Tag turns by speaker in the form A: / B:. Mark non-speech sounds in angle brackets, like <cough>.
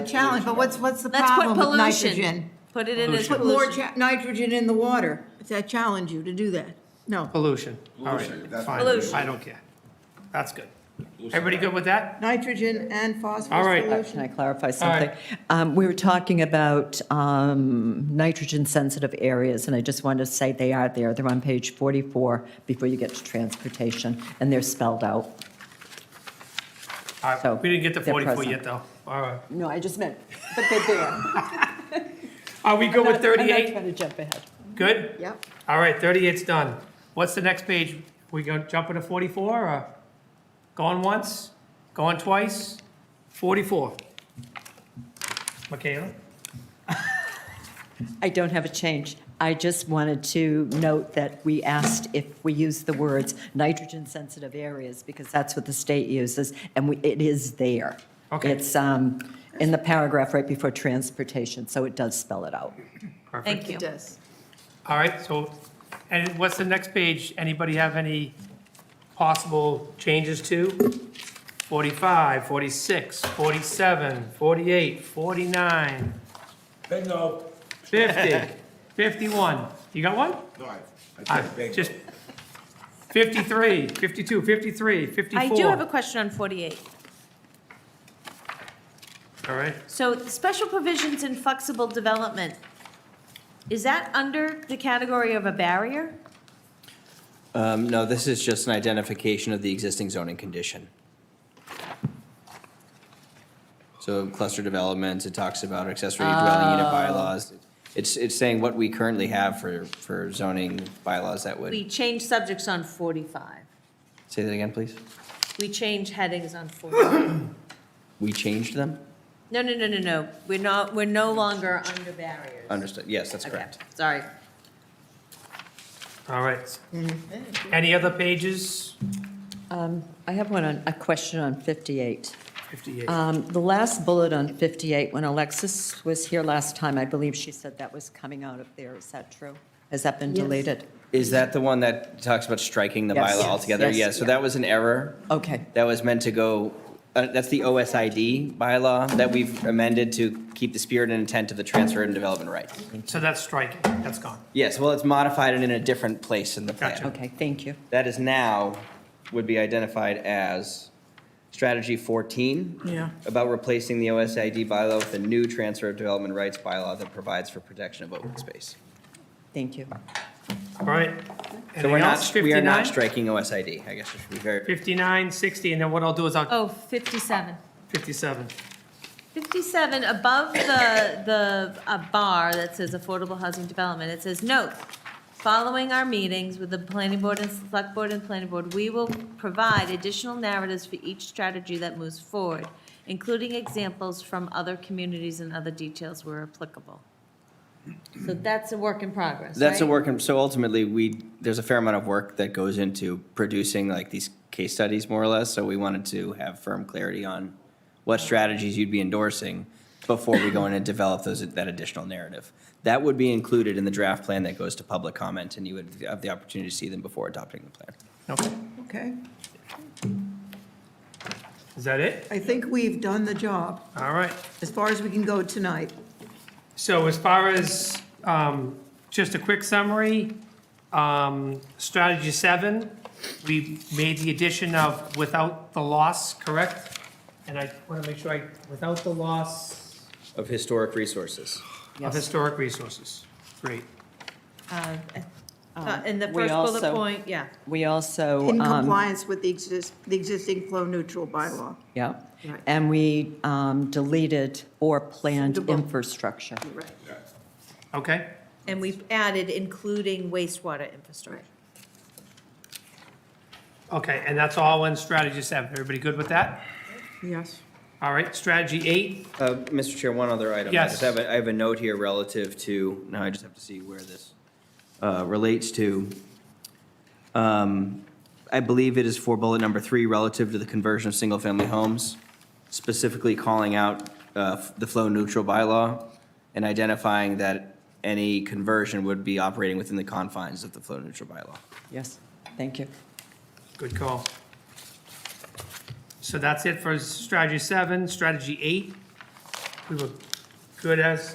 A: challenge, but what's, what's the
B: Let's put
A: problem with
B: pollution.
A: nitrogen?
B: Put it in as
A: Put more
B: pollution.
A: cha- nitrogen in the water. Oh. I challenge you to do that. No,
C: Pollution, all right,
D: Pollution, that's
C: fine,
B: Pollution.
C: I don't care. That's good. Everybody good with that?
A: nitrogen and phosphorus
C: All right.
E: Uh,
A: pollution.
E: Can I clarify
C: right.
E: something? Um, We were talking about um, nitrogen-sensitive areas, and I just wanted to say they are there. They're on page 44 before you get to transportation, and they're spelled out.
C: All right, we didn't get to
E: They're
C: 44
E: present.
C: yet, though. All right.
E: No, I just meant, but they're there.
C: <laughs> Are we good with
E: I'm not
C: 38?
E: trying to jump ahead.
C: Good?
A: Yep.
C: All right, 38's done. What's the next page? We going to jump into 44, or going once, going twice? 44. Michaela?
E: I don't have a change. I just wanted to note that we asked if we use the words nitrogen-sensitive areas, because that's what the state uses, and we- it is there.
C: Okay.
E: It's um, in the paragraph right before transportation, so it does spell it out.
C: Perfect.
B: Thank you.
A: It does.
C: All right, so, and what's the next page? Anybody have any possible changes to? 45, 46, 47, 48, 49,
D: Bingo.
C: 50, 51. You got one?
D: No, I, I
C: I-
D: said bingo.
C: Just 53, 52, 53, 54.
B: I do have a question on 48.
C: All right,
B: So special provisions in flexible development, is that under the category of a barrier?
F: Um, No, this is just an identification of the existing zoning condition. So cluster developments, it talks about accessory dwelling unit bylaws. It's, it's saying what we currently have for, for zoning bylaws that
B: We
F: would,
B: change subjects on 45.
F: say that again, please?
B: We change headings on 45.
F: We changed them?
B: No, no, no, no, no. We're not, we're no longer under barriers.
F: Understood, yes, that's
B: Okay,
F: correct.
B: Sorry.
C: all right. Any other pages?
E: Um, I have one on, a question on 58.
C: 58.
E: Um, The last bullet on 58, when Alexis was here last time, I believe she said that was coming out of there. Is that true? Has that been
A: Yes.
E: deleted?
F: Is that the one that talks about striking the
E: Yes.
F: bylaw
E: Yes.
F: altogether?
E: Yes.
F: Yeah, so that was an error.
E: Okay,
F: That was meant to go, uh, that's the OSID bylaw that we've amended to keep the spirit and intent of the transfer and development right.
C: So that's striking, that's gone.
F: Yes, well, it's modified and in a different place in the plan.
C: Gotcha.
E: okay, thank you.
F: That is now, would be identified as strategy 14.
A: Yeah.
F: About replacing the OSID bylaw with a new transfer of development rights bylaw that provides for protection of open space.
E: Thank you.
C: All right.
F: So we're
C: Anything
F: not,
C: else?
F: we are
C: 59?
F: not striking OSID, I guess I should be very,
C: 59, 60, and then what I'll do is I'll,
B: Oh, 57.
C: 57.
B: 57, above the, the uh, bar that says affordable housing development, it says, note, following our meetings with the planning board and select board and planning board, we will provide additional narratives for each strategy that moves forward, including examples from other communities and other details where applicable. So that's a work in progress,
F: that's a
B: right?
F: work, in- so ultimately, we, there's a fair amount of work that goes into producing like these case studies more or less, so we wanted to have firm clarity on what strategies you'd be endorsing before we go in and develop those, that additional narrative. That would be included in the draft plan that goes to public comment, and you would have the opportunity to see them before adopting the plan.
C: Okay,
A: Okay.
C: is that it?
A: I think we've done the job
C: All right.
A: as far as we can go tonight.
C: So as far as, um, just a quick summary, um, strategy seven, we made the addition of without the loss, correct? And I want to make sure I, without the loss
F: Of historic resources.
C: of historic resources. Great.
B: Uh, uh, In the
E: We
B: first bullet
E: also-
B: point, yeah.
E: We also.
A: In
E: um,
A: compliance with the exist, the existing flow neutral bylaw.
E: Yeah,
A: Right.
E: and we um, deleted or planned
A: Suitable.
E: infrastructure.
A: Right.
C: Okay,
B: And we've added including wastewater infrastructure.
C: okay, and that's all in strategy seven. Everybody good with that?
A: Yes.
C: All right, strategy eight,
F: Uh, Mr. Chair, one other item. I
C: Yes.
F: just have, a- I have a note here relative to, now I just have to see where this uh, relates to. Um, I believe it is for bullet number three, relative to the conversion of single-family homes, specifically calling out uh, f- the flow neutral bylaw and identifying that any conversion would be operating within the confines of the flow neutral bylaw.
E: Yes, thank you.
C: good call. So that's it for strategy seven, strategy eight. we were good as